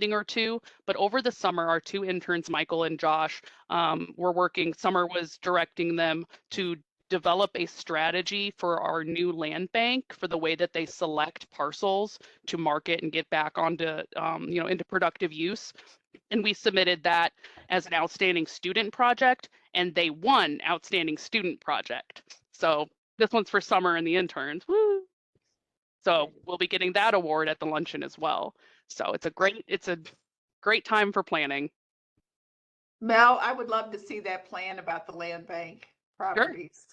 meeting or two, but over the summer, our two interns, Michael and Josh, um, were working, Summer was directing them to develop a strategy for our new land bank for the way that they select parcels to market and get back onto, um, you know, into productive use. And we submitted that as an outstanding student project and they won outstanding student project. So this one's for summer and the interns. Woo! So we'll be getting that award at the luncheon as well. So it's a great, it's a great time for planning. Mel, I would love to see that plan about the land bank properties.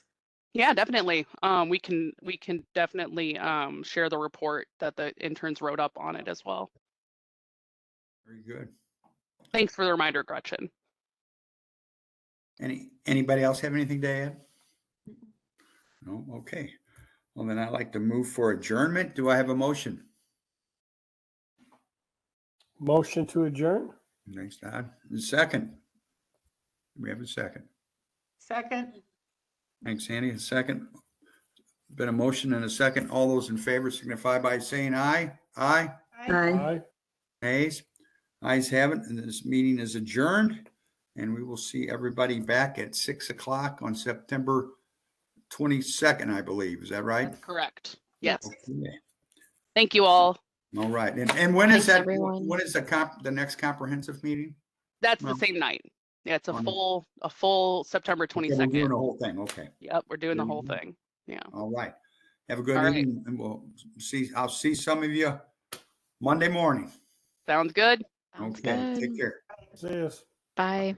Yeah, definitely. Um, we can, we can definitely, um, share the report that the interns wrote up on it as well. Very good. Thanks for the reminder, Gretchen. Any, anybody else have anything to add? No, okay. Well, then I'd like to move for adjournment. Do I have a motion? Motion to adjourn? Thanks, Todd. And Second. We have a second. Second, Thanks, Andy. A second. Been a motion and a second. All those in favor signify by saying aye. Aye. Aye. Aye. Nays. Ayes have it, and this meeting is adjourned. And we will see everybody back at six o'clock on September twenty-second, I believe. Is that right? That's correct. Yes. Okay. Thank you all. All right, and, and when is Thanks, that, everyone. when is the comp, the next comprehensive meeting? That's the Well, same night. Yeah, it's a on- full, a full September Okay, we're doing twenty-second. The whole thing, okay, Yep, we're doing the whole Mhm. thing. all right. Have a good All right. evening, and we'll see, I'll see some of you Monday morning. Sounds good. Sounds Okay, good. take care. See us. Bye.